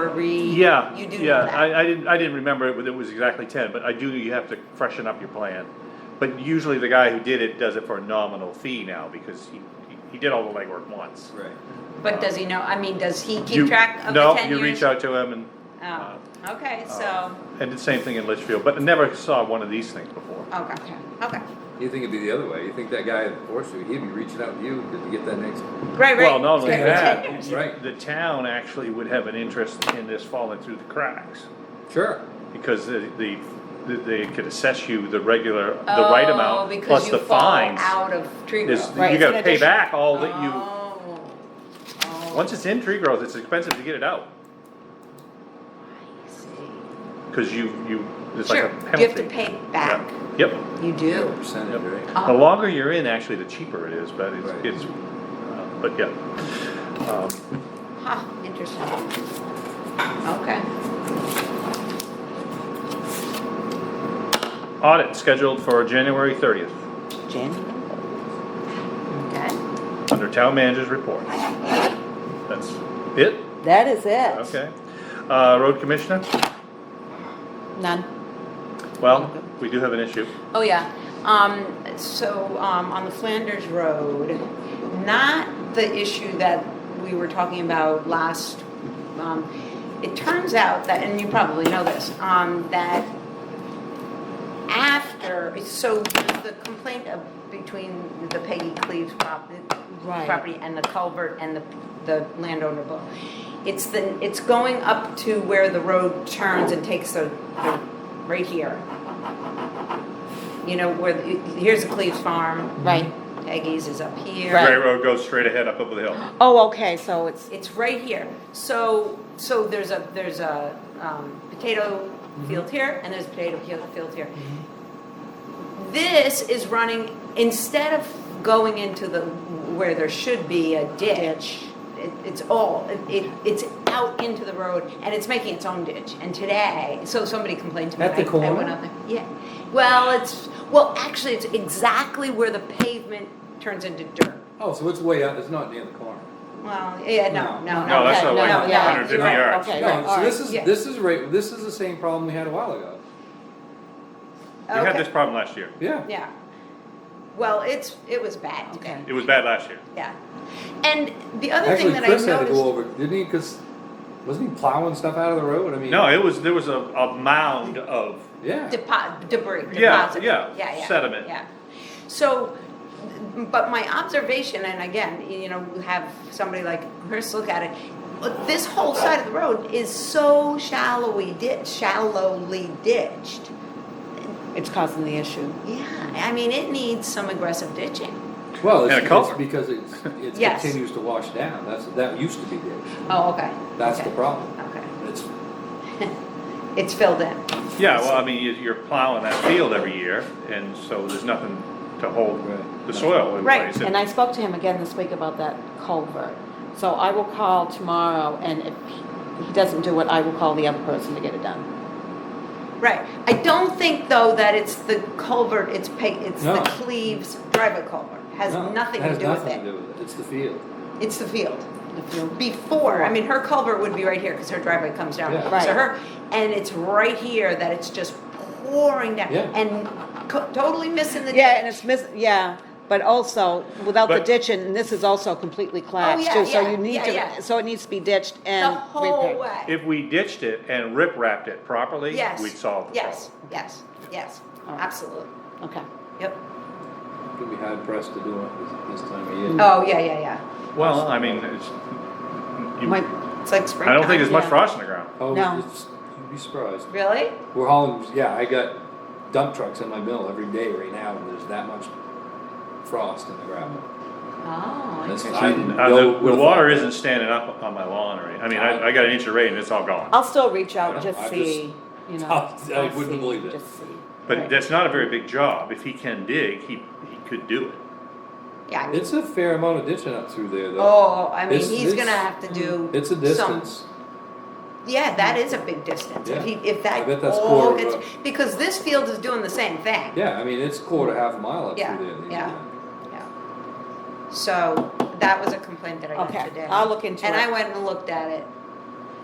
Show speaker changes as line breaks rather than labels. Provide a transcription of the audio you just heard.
re?
Yeah,
You do know
yeah,
that.
I, I didn't, I didn't remember it, but it was exactly ten, but I do, you have to freshen up your plan. But usually the guy who did it does it for a nominal fee now, because he, he- he did all the legwork once.
Right.
But does he know, I mean, does he
You-
keep track of the
No,
ten years?
you reach out to him and, uh,
Oh, okay,
uh,
so,
and the same thing in Litchfield, but I never saw one of these things before.
okay, oh, okay,
You think it'd be the other way? You think that guy at Forest Street, he'd be reaching out to you to get that next?
right, right.
Well, not only that,
Right.
the town actually would have an interest in this falling through the cracks.
Sure.
Because the, the, they could assess you the regular, the right amount, plus the fines.
Oh, because you Oh, fall out of tree
Is,
growth.
Right,
you
it's
gotta
an
pay
addition.
back all that you,
Oh, oh,
once it's in tree growth, it's expensive to get it out,
I see.
cause you, you, it's like a
Sure,
penalty.
you have to pay back,
Yeah. Yep,
you do.
Percentage, right?
yep. The
Oh.
longer you're in, actually, the cheaper it is, but
Right.
it's, it's, uh, but yeah. Um,
Huh, interesting. Okay,
Audit scheduled for January thirtieth,
Jen?
okay.
under town manager's report. That's it?
That is it.
Okay. Uh, road commissioner?
None.
Well, we do have an issue.
Oh, yeah. Um, so, um, on the Flanders Road, not the issue that we were talking about last, um, it turns out that, and you probably know this, um, that after, so the complaint of, between the Peggy Cleaves prop-
Right.
property and the culvert and the, the landowner bill. It's the, it's going up to where the road turns and takes the, the, right here. You know, where, the- here's the Cleves Farm,
Right.
Peggy's is up here.
Right.
Gray Road goes straight ahead up over the hill.
Oh, okay, so it's,
It's right here. So, so there's a, there's a um, potato
Mm-hmm.
field here, and there's a potato field- field here.
Mm-hmm.
This is running, instead of going into the, where there should be a ditch, it- it's all, it- it, it's out into the road, and it's making its own ditch. And today, so somebody complained to me.
At the
I- I
corner?
went out there. Yeah. Well, it's, well, actually, it's exactly where the pavement turns into dirt.
Oh, so it's way out, it's not near the corner.
Well, yeah, no, no, no.
No, that's not
no,
like
no, no.
150
no,
yards.
okay.
No, so
alright,
this is,
yeah.
this is right, this is the same problem we had a while ago.
We had this problem last year.
Yeah.
Yeah. Well, it's, it was bad today,
It was bad last year.
yeah. And the other thing
Actually,
that I
Chris had to go
noticed,
over, didn't he? Cause wasn't he plowing stuff out of the road? I mean.
No, it was, there was a, a mound of,
Yeah.
depo- debris,
Yeah,
deposit.
yeah,
yeah, yeah,
sediment.
Yeah. So, but my observation, and again, you know, we have somebody like Chris look at it, but this whole side of the road is so shallowly ditched, shallowly ditched.
it's causing the issue.
Yeah, I mean, it needs some aggressive ditching.
Well,
And a
it's, it's
culvert.
because it's, it
Yes.
continues to wash down. That's, that used to be there.
Oh, okay.
That's the
Okay.
problem.
Okay,
It's,
it's filled in.
yeah, well, I mean, you- you're plowing that field every year, and so there's nothing to hold
Right.
the soil in
Right,
place.
And I spoke to him again this week about that culvert. So I will call tomorrow and if he doesn't do it, I will call the other person to get it done.
Right. I don't think though that it's the culvert, it's pa, it's the
No.
Cleves driver culvert, has
no,
nothing
that
to
has
do with
nothing to
it.
do with it. It's the field.
It's the field. Before, I mean, her culvert would be right here, cause her driveway comes down.
Yeah.
Right.
So her, and it's right here that it's just pouring down
Yeah.
and co- totally missing the.
Yeah, and
ditch.
it's miss, yeah, but also without the
But-
ditching, and this is also completely collapsed
Oh, yeah,
too, so
yeah,
you need
yeah, yeah.
to, so it needs to be ditched
The
and
whole
repaired.
way.
If we ditched it and rip wrapped it properly,
Yes.
we'd solve the problem.
Yes, yes, yes,
All right.
absolutely.
Okay.
Yep.
You'd be hard pressed to do it this, this time of year.
Oh, yeah, yeah, yeah.
Well, I mean, it's, you-
Might,
It's like spring.
I don't think there's much
yeah.
frost in the ground.
Oh,
No.
it's, you'd be surprised.
Really?
We're hauling, yeah, I got dump trucks in my mill every day right now, and there's that much frost in the gravel.
Oh.
That's-
interesting.
I didn't
Uh,
know-
The the water isn't standing up on my lawn or, any- I mean, I, I got an inch of rain and it's all gone.
I'll still reach out and
I don't-
just
I
see, you know.
I
I'll
wouldn't
see,
believe it.
just see.
But
Right.
that's not a very big job. If he can dig, he, he could do it.
Yeah. I mean,
It's a fair amount of ditching up through there, though.
Oh, I mean,
It's-
he's
it's-
gonna have to do.
mm, It's a
some-
distance.
Yeah, that is a big distance, if he,
Yeah.
if
I
that
bet that's
all
quarter
gets,
mile.
because this field is doing the same thing.
Yeah, I mean, it's quarter, half a mile up
Yeah,
through there. that you
yeah.
do that.
Yeah. So, that was a complaint that I got
Okay,
today.
I'll look into
And I
it.
went and looked at it,